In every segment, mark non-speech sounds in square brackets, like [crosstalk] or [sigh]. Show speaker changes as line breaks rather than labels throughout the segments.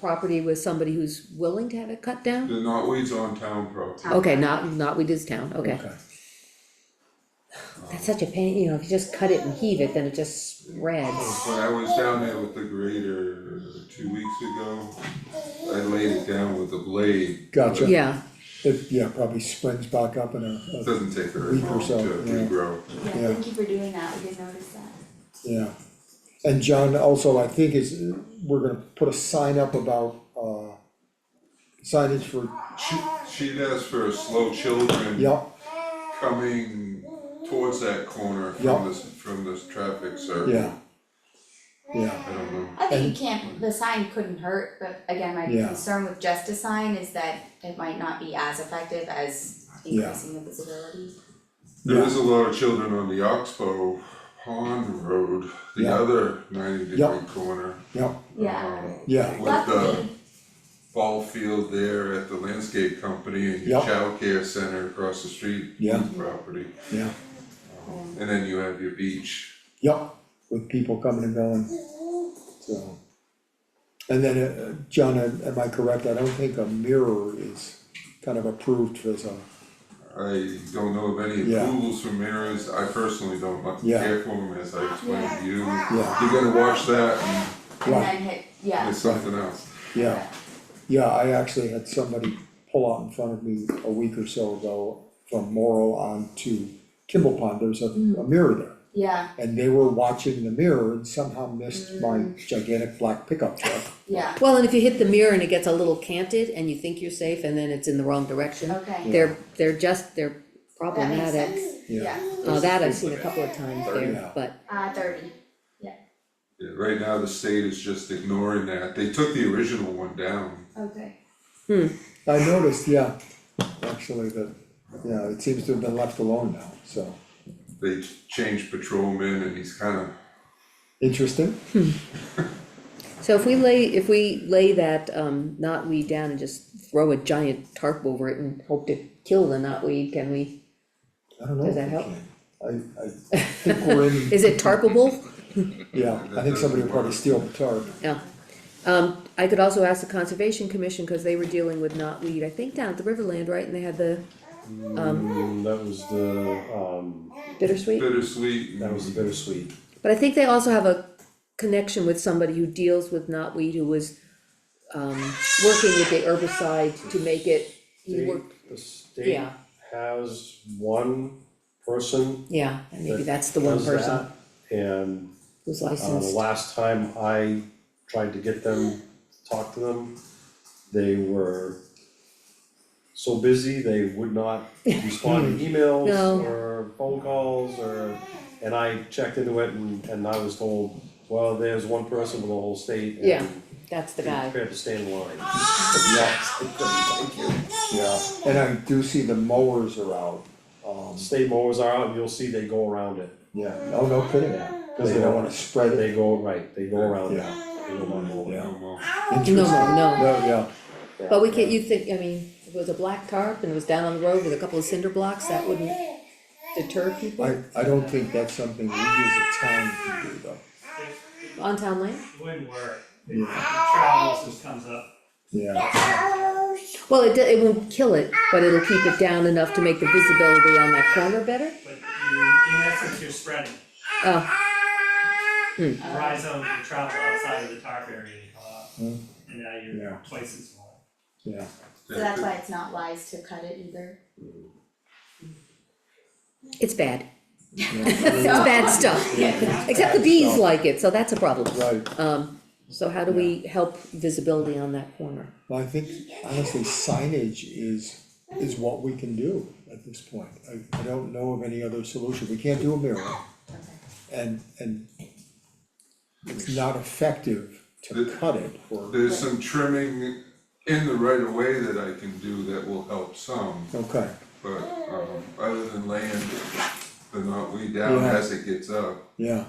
property with somebody who's willing to have it cut down?
The knotweed's on town property.
Okay, not, not we just town, okay.
That's such a pain, you know, if you just cut it and heave it, then it just spreads.
When I was down there with the grader two weeks ago, I laid it down with a blade.
Gotcha.
Yeah,
It, yeah, probably springs back up in a,
It
a-
Doesn't take very
Week or
long to
so, yeah.
regrow.
Yeah,
Yeah.
thank you for doing that, we did notice that.
yeah. And John also, I think is, we're gonna put a sign up about, uh, signage for,
She, she does for slow children
yeah,
coming towards that corner
Yeah.
from this, from this traffic circle.
yeah. Yeah,
I don't know.
I
And-
think you can't, the sign couldn't hurt, but again, my
Yeah.
concern with just a sign is that it might not be as effective as
Yeah.
increasing the visibility.
There
Yeah.
is a lot of children on the Oxbow Pond Road, the
Yeah.
other ninety
Yeah.
degree corner.
yeah,
Yeah,
um,
yeah,
With the
luckily,
ball field there at the landscape company and
Yeah.
your childcare center across the street.
Yeah.
Property,
yeah,
and then you have your beach.
yeah, with people coming and going, so. And then, uh, John, am am I correct? I don't think a mirror is kind of approved for uh, some,
I don't know of any
Yeah.
approvals from mirrors, I personally don't like to
Yeah.
care for them, as I explained to you.
Yeah.
You're gonna watch that
and then hit,
and
yeah,
it's something else.
yeah. Yeah, I actually had somebody pull out in front of me a week or so ago from Morrow on to Kimball Pond, there's a,
Mm.
a mirror there.
yeah,
And they were watching the mirror and somehow
Mm.
missed my gigantic black pickup truck.
yeah,
well, and if you hit the mirror and it gets a little canted and you think you're safe and then it's in the wrong direction,
okay,
they're, they're just, they're
that makes
problematic.
sense,
Yeah.
yeah,
Uh, that I've seen a couple of times
Yeah.
there, but,
uh, thirty,
Yeah, Right now, the state is just ignoring that, they took the original one down,
okay,
I noticed, yeah, actually that, yeah, it seems to have been left alone now, so,
they changed patrolman and he's kinda,
interesting,
so if we lay, if we lay that, um, knotweed down and just throw a giant tarp over it and hope to kill the knotweed, can we?
I don't know.
Does that
if we
help?
can. I, I think we're in,
Is it tarpable?
yeah, I think somebody will probably steal the tarp,
Yeah. Um, I could also ask the Conservation Commission, cause they were dealing with knotweed, I think down at the Riverland, right, and they had the um,
Mm, that was the, um,
bittersweet?
bittersweet. and-
that was the bittersweet.
But I think they also have a connection with somebody who deals with knotweed, who was um working with the herbicide to make it, he
State-
worked,
The state
Yeah.
has one person
yeah, and maybe
That
that's the one
does
person
that. And,
who's
uh, the
licensed.
last time I tried to get them, talk to them, they were so busy, they would
[laughs]
not respond to emails
No.
or phone calls or, and I checked into it and, and I was told, well, there's one person for the whole state and
Yeah. That's the
be
guy,
prepared to stay in line.
yeah, and I do see the mowers are out, um,
State mowers are out and you'll see they go around it.
yeah, oh, no kidding, cause they don't wanna spread it,
They go, right, they go around it.
yeah,
They go around it.
yeah,
Oh, well.
interesting.
no, no,
No, yeah,
but we can't, you think, I mean, if it was a black tarp and it was down on the road with a couple of cinder blocks, that wouldn't deter people
I, I don't think that's something we as a town can do though,
on town land?
Wouldn't work. It
yeah,
travels just comes up.
yeah,
Well, it do- it won't kill it, but it'll keep it down enough to make the visibility on that corner better,
But you, in essence, you're spreading.
oh,
Rhizome can travel outside of the tarp area and come up.
Hmm.
And now
Yeah.
you're twice as small.
yeah,
so that's why it's not wise to cut it either.
it's bad. [laughs]
yeah,
It's bad stuff, except the bees
stuff.
like it, so that's a problem.
right.
Um, so how do we help visibility on that corner?
Well, I think honestly signage is, is what we can do at this point. I, I don't know of any other solution. We can't do a mirror. And, and it's not effective to cut it or,
There's some trimming in the right of way that I can do that will help some,
okay,
but um other than laying the knotweed down
Yeah.
as it gets up.
yeah.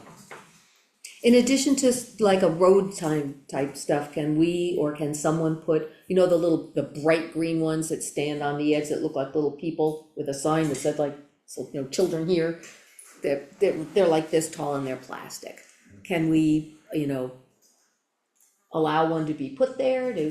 In addition to s- like a road time type stuff, can we or can someone put, you know, the little, the bright green ones that stand on the edge that look like little people with a sign that said like, so, you know, children here? They're, they're, they're like this tall and they're plastic. Can we, you know, allow one to be put there, to